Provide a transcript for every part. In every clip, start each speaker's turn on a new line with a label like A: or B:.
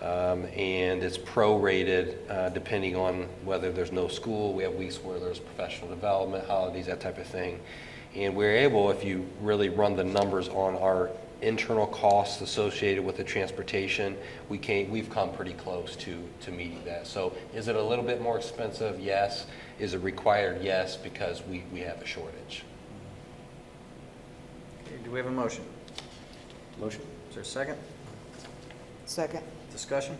A: um, and it's prorated uh, depending on whether there's no school. We have weeks where there's professional development, holidays, that type of thing. And we're able, if you really run the numbers on our internal costs associated with the transportation, we came, we've come pretty close to, to meeting that. So is it a little bit more expensive? Yes. Is it required? Yes, because we, we have a shortage.
B: Okay, Do we have a motion?
C: Motion?
B: Is there a second?
D: Second.
B: Discussion?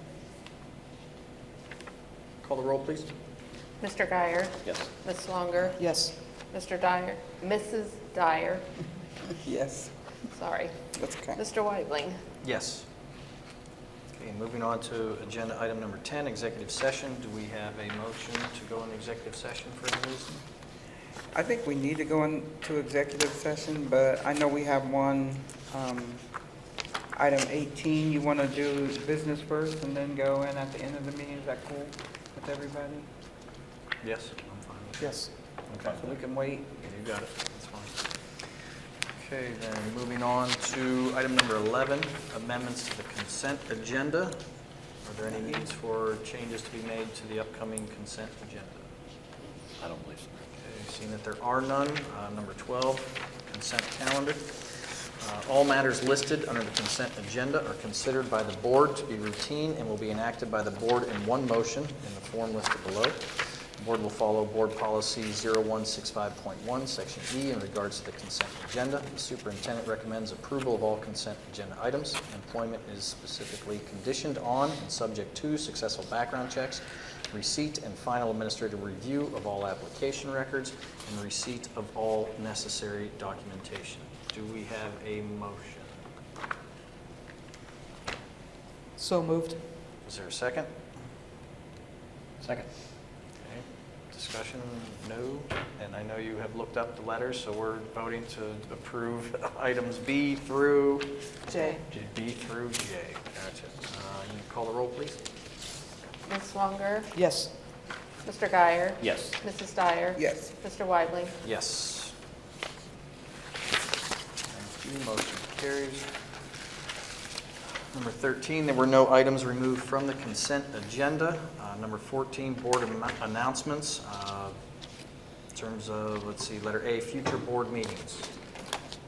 B: Call the roll, please.
E: Mr. Guyer.
C: Yes.
E: Ms. Swanger.
D: Yes.
E: Mr. Dyer. Mrs. Dyer.
D: Yes.
E: Sorry.
D: That's okay.
E: Mr. Weidling.
B: Yes. Okay, moving on to agenda item number 10, executive session. Do we have a motion to go into executive session for any reason?
D: I think we need to go into executive session, but I know we have one, um, item 18. You want to do business first and then go in at the end of the meeting? Is that cool with everybody?
B: Yes. I'm fine with it.
D: Yes.
B: Okay.
D: So we can wait.
B: You got it, that's fine. Okay, then, moving on to item number 11, amendments to the consent agenda. Are there any needs for changes to be made to the upcoming consent agenda?
C: I don't believe so.
B: Okay, Seeing that there are none, uh, number 12, consent calendar. Uh, All matters listed under the consent agenda are considered by the board to be routine and will be enacted by the board in one motion in the form listed below. The board will follow Board Policy 0165.1, Section E, in regards to the consent agenda. The superintendent recommends approval of all consent agenda items. Employment is specifically conditioned on and subject to successful background checks, receipt and final administrative review of all application records, and receipt of all necessary documentation. Do we have a motion?
D: So moved.
B: Is there a second?
C: Second.
B: Okay. Discussion, no. And I know you have looked up the letters, so we're voting to approve items B through,
D: Jay.
B: B through J. Gotcha. Uh, you Call the roll, please.
E: Ms. Swanger.
D: Yes.
E: Mr. Guyer.
C: Yes.
E: Mrs. Dyer.
D: Yes.
E: Mr. Weidling.
B: Yes. Thank you, motion carries. Number 13, there were no items removed from the consent agenda. Uh, Number 14, board am- announcements. Uh, In terms of, let's see, letter A, future board meetings.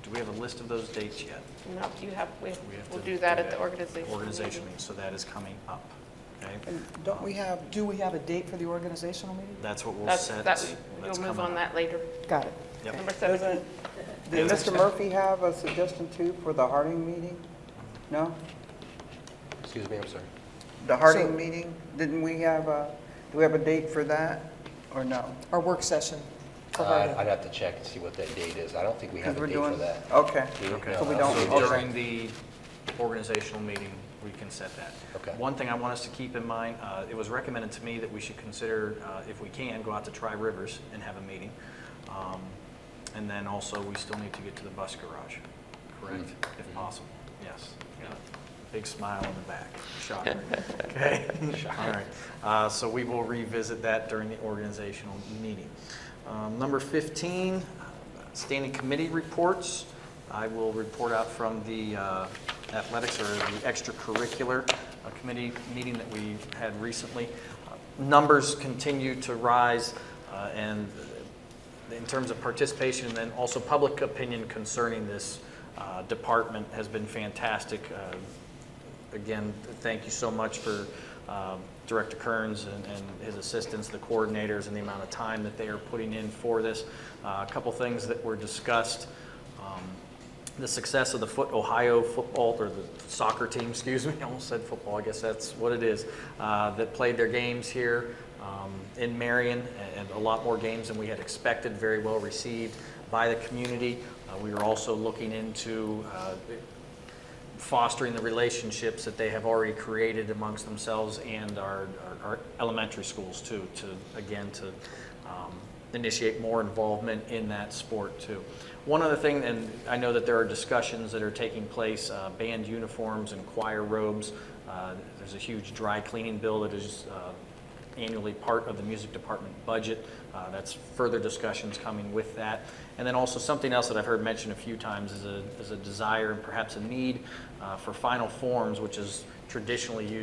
B: Do we have a list of those dates yet?
E: No, you have, we-
B: We have
E: we'll
B: to
E: do that at the organization.
B: Organization
E: meeting.
B: meeting, so that is coming up, okay?
D: Don't we have, do we have a date for the organizational meeting?
B: That's what we'll
E: That's-
B: set.
E: that-
B: That's
E: You'll move
B: coming
E: on
B: up.
E: that later.
D: Got it.
B: Yep.
E: Number 17.
D: Doesn't, did
B: Yes.
D: Mr. Murphy have a suggestion too for the Harding meeting? No?
A: Excuse me, I'm sorry.
D: The
F: So-
D: Harding meeting, didn't we have a, do we have a date for that, or no?
F: our work session for
A: Uh, I'd
F: her.
A: have to check and see what that date is. I don't think we have
D: Because
A: a
D: we're
A: date for
D: doing
A: that.
D: Okay,
A: Okay.
D: so we
B: So
D: don't, okay.
B: during the organizational meeting, we can set that.
A: Okay.
B: One thing I want us to keep in mind, uh, it was recommended to me that we should consider, uh, if we can, go out to Tri Rivers and have a meeting. Um, And then also, we still need to get to the bus garage, correct?
A: Mm-hmm.
B: If possible, yes. Big smile on the back, shocker. Okay, all right. Uh, So we will revisit that during the organizational meeting. Um, Number 15, standing committee reports. I will report out from the uh, athletics or the extracurricular uh, committee meeting that we had recently. Uh, Numbers continue to rise, uh, and in terms of participation, and then also public opinion concerning this uh, department has been fantastic. Uh, Again, thank you so much for um, Director Kearns and and his assistants, the coordinators, and the amount of time that they are putting in for this. Uh, A couple things that were discussed, um, the success of the foot, Ohio football, or the soccer team, excuse me, I almost said football, I guess that's what it is, uh, that played their games here um, in Marion, and- and a lot more games than we had expected, very well received by the community. Uh, We are also looking into uh, fostering the relationships that they have already created amongst themselves and our, our, our elementary schools too, to, again, to um, initiate more involvement in that sport too. One other thing, and I know that there are discussions that are taking place, uh, band uniforms and choir robes. Uh, There's a huge dry cleaning bill that is uh, annually part of the music department budget. Uh, That's further discussions coming with that. And then also something else that I've heard mentioned a few times is a, is a desire and perhaps a need uh, for final forms, which is traditionally used